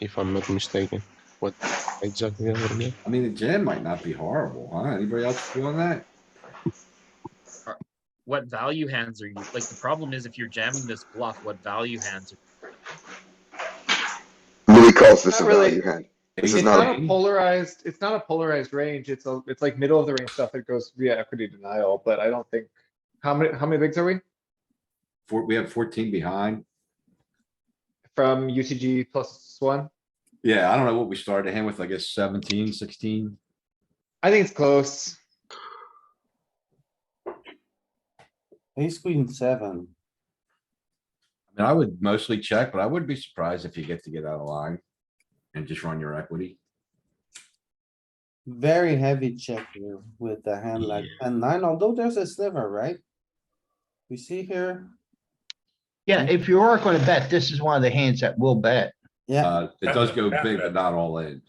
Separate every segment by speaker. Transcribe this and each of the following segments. Speaker 1: if I'm not mistaken. What exactly over there?
Speaker 2: I mean, the jam might not be horrible, huh? Anybody else feeling that?
Speaker 3: What value hands are you, like, the problem is if you're jamming this bluff, what value hands? are-
Speaker 4: Louis calls this a
Speaker 5: Not really.
Speaker 4: value hand. This
Speaker 5: It's
Speaker 4: is
Speaker 5: not
Speaker 4: not,
Speaker 5: a polarized, it's not a polarized range. It's a, it's like middle of the range stuff that goes via equity denial, but I don't think. How many, how many bigs are we
Speaker 2: Four, we have fourteen behind.
Speaker 5: from UTG plus one?
Speaker 2: Yeah, I don't know what we started him with, I guess 17, 16.
Speaker 5: I think it's close.
Speaker 6: Ace queen seven.
Speaker 2: I mean, I would mostly check, but I wouldn't be surprised if you get to get out of line and just run your equity.
Speaker 6: Very heavy check here with the hand like ten nine, although there's a sliver, right? We see here,
Speaker 7: Yeah, if you are gonna bet, this is one of the hands that will bet.
Speaker 6: yeah,
Speaker 2: Uh, it does go big, but not all in.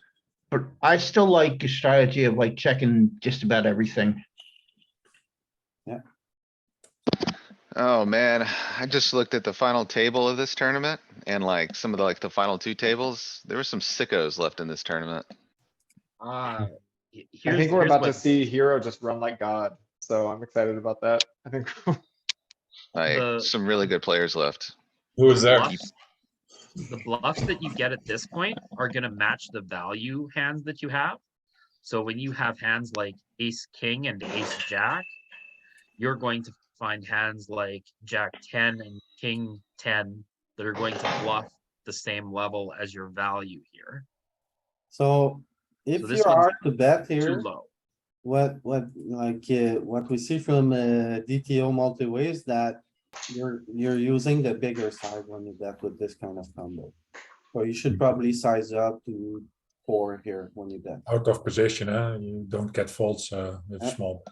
Speaker 7: But I still like your strategy of like checking just about everything.
Speaker 8: Oh, man, I just looked at the final table of this tournament and like some of the, like the final two tables, there were some sickos left in this tournament.
Speaker 3: Ah, he-
Speaker 5: I
Speaker 3: here's,
Speaker 5: think we're
Speaker 3: here's
Speaker 5: about to
Speaker 3: what
Speaker 5: see Hero just run like God, so I'm excited about that. I think
Speaker 3: The-
Speaker 8: Like, some really good players left.
Speaker 9: Who is there?
Speaker 3: bluffs- the bluffs that you get at this point are gonna match the value hands that you have. So when you have hands like ace, king and ace, jack, you're going to find hands like jack ten and king ten that are going to bluff the same level as your value here.
Speaker 6: so if
Speaker 3: So
Speaker 6: you
Speaker 3: this
Speaker 6: are
Speaker 3: one's
Speaker 6: to bet
Speaker 3: Too
Speaker 6: here,
Speaker 3: low.
Speaker 6: what, what, like, uh, what we see from, uh, DTO multi-way is that you're, you're using the bigger side when you bet with this kind of combo. So
Speaker 3: Hmm.
Speaker 6: you should probably size up to four here when you bet.
Speaker 9: Out of position, eh? You don't get faults uh, with
Speaker 6: Yeah.
Speaker 9: small.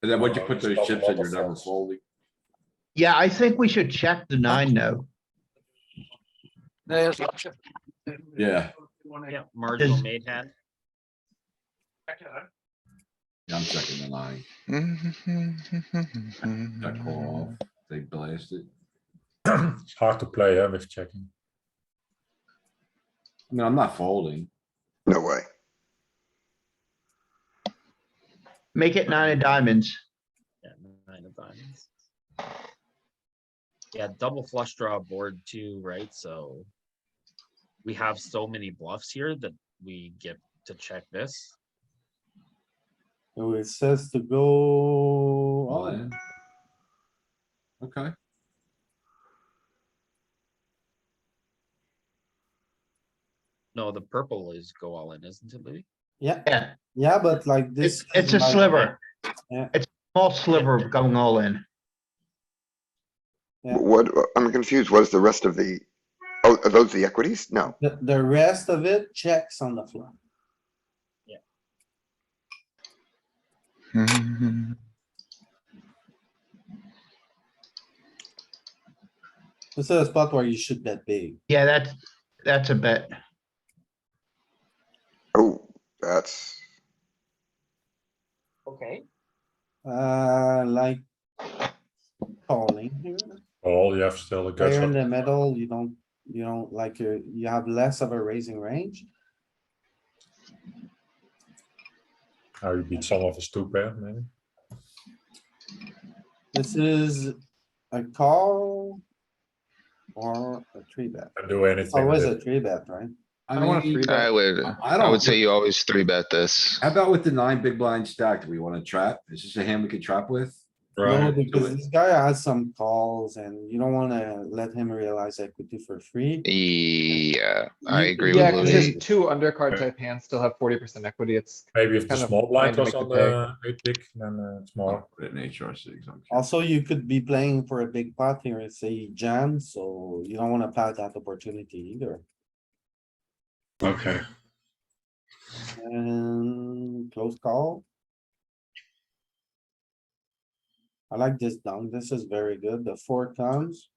Speaker 2: And then once you
Speaker 9: Oh,
Speaker 2: put
Speaker 9: it's
Speaker 2: those
Speaker 9: got a
Speaker 2: chips
Speaker 9: lot
Speaker 2: in, you're
Speaker 9: of
Speaker 2: never
Speaker 9: folds.
Speaker 2: folding.
Speaker 7: Yeah, I think we should check the nine though.
Speaker 2: Yeah,
Speaker 3: Yeah, marginal
Speaker 7: Is-
Speaker 3: made hand.
Speaker 2: yeah, I'm checking the line. I call off. They blast it.
Speaker 9: it's hard to play eh, with checking.
Speaker 2: I mean, I'm not folding.
Speaker 4: no way.
Speaker 7: Make it nine of diamonds.
Speaker 3: Yeah, nine of diamonds. Yeah, double flush draw board too, right? So we have so many bluffs here that we get to check this.
Speaker 6: So it says to go.
Speaker 2: All
Speaker 6: oh,
Speaker 2: in. Okay.
Speaker 3: No, the purple is go all in, isn't it, Louis?
Speaker 6: Yeah,
Speaker 7: Yeah,
Speaker 6: yeah, but like this.
Speaker 7: it's, it's a
Speaker 6: like-
Speaker 7: sliver.
Speaker 6: Yeah.
Speaker 7: It's a small sliver of going all in.
Speaker 6: Yeah.
Speaker 4: What, I'm confused. What is the rest of the, oh, are those the equities? No.
Speaker 6: The, the rest of it checks on the flop. This is a spot where you should bet big.
Speaker 7: Yeah, that's, that's a bet.
Speaker 4: Oh, that's,
Speaker 3: Okay.
Speaker 6: Uh, like calling here,
Speaker 9: Well, you have still the guts.
Speaker 6: player in
Speaker 9: of-
Speaker 6: the middle, you don't, you don't like, you, you have less of a raising range.
Speaker 9: Now you beat some of us two pair, maybe.
Speaker 6: This is a call or a three bet.
Speaker 9: Can do anything.
Speaker 6: Always
Speaker 9: with
Speaker 6: a three bet, right?
Speaker 2: I
Speaker 5: I want a
Speaker 2: mean,
Speaker 5: three bet.
Speaker 8: I would,
Speaker 2: I
Speaker 8: I
Speaker 2: don't
Speaker 7: Oh,
Speaker 8: would say
Speaker 2: think-
Speaker 8: you always three bet this.
Speaker 2: How about with the nine big blind stack? Do we wanna trap? Is this a hand we could trap with?
Speaker 6: No,
Speaker 9: Right.
Speaker 6: because this guy has some calls and you don't wanna let him realize equity for free.
Speaker 8: E, Yeah, I
Speaker 5: You-
Speaker 8: agree
Speaker 5: Yeah,
Speaker 8: with
Speaker 5: cause
Speaker 8: Louis.
Speaker 5: there's two undercard type hands still have forty percent equity. It's,
Speaker 9: Maybe if the
Speaker 5: kind of
Speaker 9: small blind
Speaker 5: trying
Speaker 9: was
Speaker 5: to
Speaker 9: on
Speaker 5: make the
Speaker 9: the eight big, then uh, it's more.
Speaker 2: Put it in HR six. I'm kidding.
Speaker 6: Also, you could be playing for a big pot here and say jam, so you don't wanna pass that opportunity either.
Speaker 10: Okay,
Speaker 6: And close call. I like this down. This is very good. The four comes.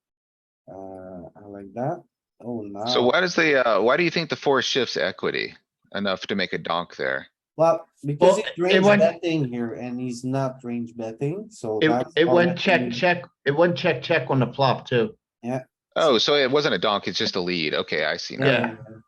Speaker 6: Uh, I like that. Oh,
Speaker 8: So
Speaker 6: now,
Speaker 8: why does the, uh, why do you think the four shifts equity enough to make a donk there?
Speaker 6: well, because
Speaker 7: Well,
Speaker 6: it's
Speaker 7: it
Speaker 6: range
Speaker 7: went-
Speaker 6: betting here and he's not range betting, so.
Speaker 7: It,
Speaker 6: that's
Speaker 7: it
Speaker 6: all
Speaker 7: went
Speaker 6: that
Speaker 7: check,
Speaker 6: means.
Speaker 7: check, it went check, check on the flop too.
Speaker 11: Oh, so it wasn't a donk, it's just a lead. Okay, I see now.
Speaker 7: Yeah.
Speaker 6: Uh,